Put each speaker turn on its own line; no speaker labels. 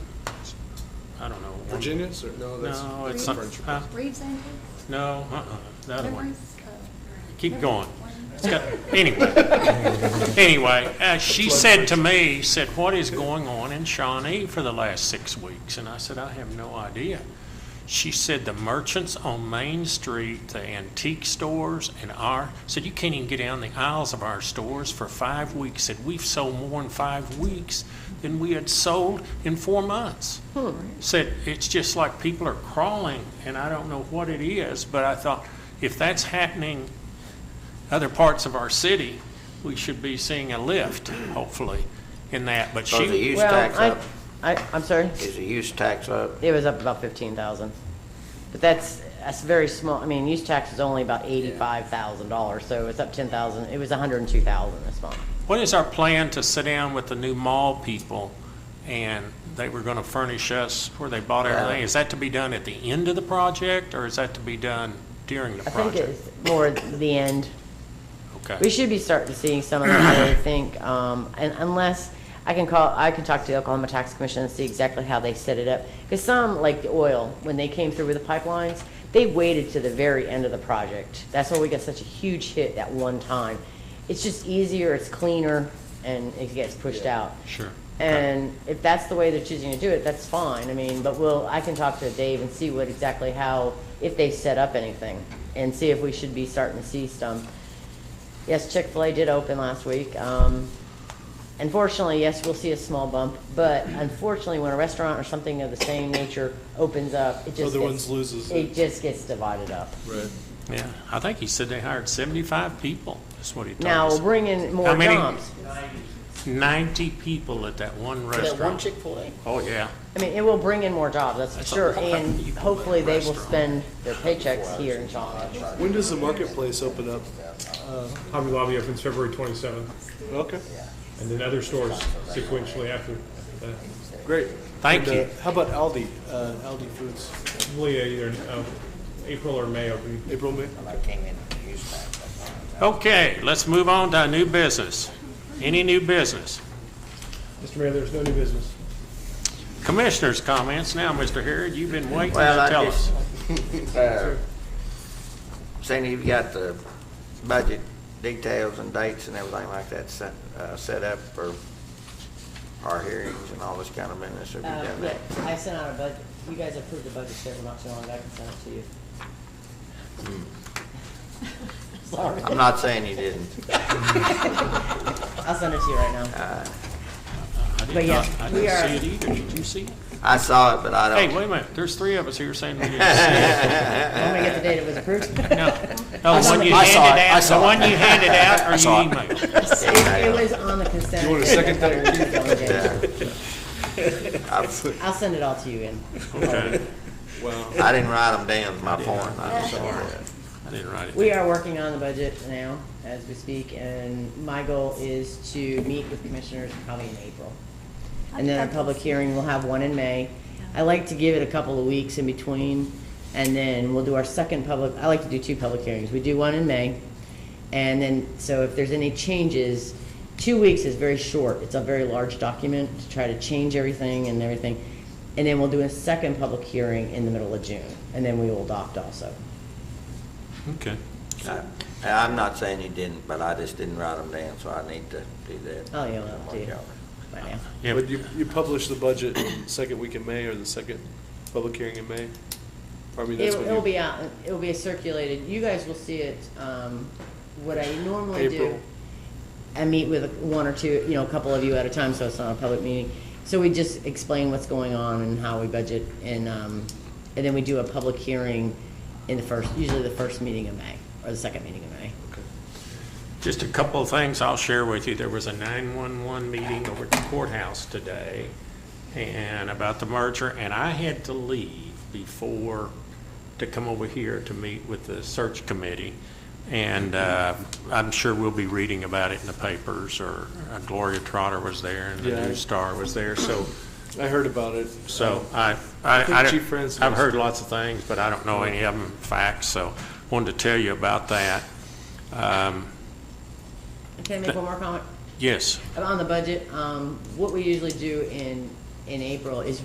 Virginia's, or, no, that's.
No,
that's
it's
the
not,
French.
huh?
Reeves Antiques?
no, uh-uh, that one.
Memories of-
Keep
Memories
going.
of one-
It's got, anyway. Anyway, uh, she said to me, said, what is going on in Shawnee for the last six weeks? And I said, I have no idea. She said, the merchants on Main Street, the antique stores and our, said, you can't even get down the aisles of our stores for five weeks. Said, we've sold more in five weeks than we had sold in four months. Said, it's just like people are crawling and I don't know what it is, but I thought, if that's happening other parts of our city, we should be seeing a lift, hopefully, in that. But
So the
she,
use tax
Well,
up,
I, I, I'm sorry?
is the use tax up?
It was up about fifteen thousand. But that's, that's very small, I mean, use tax is only about eighty-five thousand dollars, so it's up ten thousand, it was a hundred and two thousand this month.
what is our plan to sit down with the new mall people? And they were going to furnish us where they bought everything. Is that to be done at the end of the project, or is that to be done during the
I think
project?
it's more the end. We
Okay.
should be starting to see some of that, I think, um, and unless, I can call, I can talk to the Oklahoma Tax Commission and see exactly how they set it up. Because some, like the oil, when they came through with the pipelines, they waited to the very end of the project. That's why we got such a huge hit that one time. It's just easier, it's cleaner, and it gets pushed out.
Sure. Okay.
And if that's the way they're choosing to do it, that's fine, I mean, but we'll, I can talk to Dave and see what exactly how, if they set up anything, and see if we should be starting to see some. Yes, Chick-fil-A did open last week, um, unfortunately, yes, we'll see a small bump, but unfortunately, when a restaurant or something of the same nature opens up, it just
Other
gets-
ones loses
It
it.
just gets divided up.
Right.
Yeah, I think he said they hired 75 people, That's what he told
Now,
us.
we'll bring in more
How many?
jobs.
90 people at that one restaurant.
That one Chick-fil-A?
Oh, yeah.
I mean, it will bring in more jobs, that's for
That's a
sure,
lot
and
of people at
hopefully they will
restaurant.
spend their paychecks here in Shawnee.
When does the marketplace open up?
Hobby Lobby opens February 27th,
Okay,
and then other stores sequentially after that.
great.
Thank
And, uh,
you.
How about Aldi, uh, Aldi Foods,
Probably either uh, April or May opening.
April, May?
When I came in, the use tax, I thought,
Okay, let's move on to our new business. Any new business?
Mr. Mayor, there's no new business.
Commissioners' comments now, Mr. Harrod, you've been waiting
Well,
to
I
tell us.
just, uh, Sandy, you've got the budget details and dates and everything like that set, uh, set up for our hearings and all this kind of business, have you
Uh,
done
yeah,
that?
I sent out a budget, you guys approved the budget statement not too long ago, I can send it to you.
Hmm.
Sorry,
I'm not saying you didn't.
I'll send it to you right now.
I
But
did
yeah,
not, I
we are-
didn't see it either. Did you see it?
I saw it, but I
Hey,
don't.
wait a minute, there's three of us here saying we didn't see it.
I'm gonna get the date it was approved. It
No, no, the one you
I saw
handed
it, I
out, the
saw
one
it.
you handed out or
saw
you
it.
emailed.
it was on the consent.
You want a second
I-
I'll send it all to you in.
Okay,
Wow.
I didn't write them down, is my point, I'm sorry.
I didn't write it.
We are working on the budget now as we speak, and my goal is to meet with commissioners probably in April. And then a public hearing, we'll have one in May. I like to give it a couple of weeks in between, and then we'll do our second public, I like to do two public hearings. We do one in May, and then, so if there's any changes, two weeks is very short. It's a very large document to try to change everything and everything. And then we'll do a second public hearing in the middle of June, and then we will adopt also.
Okay.
I- Uh, I'm not saying you didn't, but I just didn't write them down, so I need to do that.
Oh, yeah, well, dude. By now.
Yeah,
But you, you publish the budget in second week in May, or the second public hearing in May? I mean, that's
It'll,
when
it'll
you,
be out, it'll be circulated, you guys will see it, um, what I normally do.
April.
I meet with one or two, you know, a couple of you at a time, so it's not a public meeting. So we just explain what's going on and how we budget, and, um, and then we do a public hearing in the first, usually the first meeting of May, or the second meeting of May.
Just a couple of things I'll share with you. There was a 911 meeting over at the courthouse today and about the merger, and I had to leave before, to come over here to meet with the search committee. And uh, I'm sure we'll be reading about it in the papers, or uh, Gloria Trotter was there and the
Yeah.
News Star was there, so,
I heard about it.
so I, I,
I think
I don't-
Chief Francis-
I've heard lots of things, but I don't know any of them facts, so wanted to tell you about that. Um,
Can I make one more comment?
Yes.
On the budget, um, what we usually do in, in April is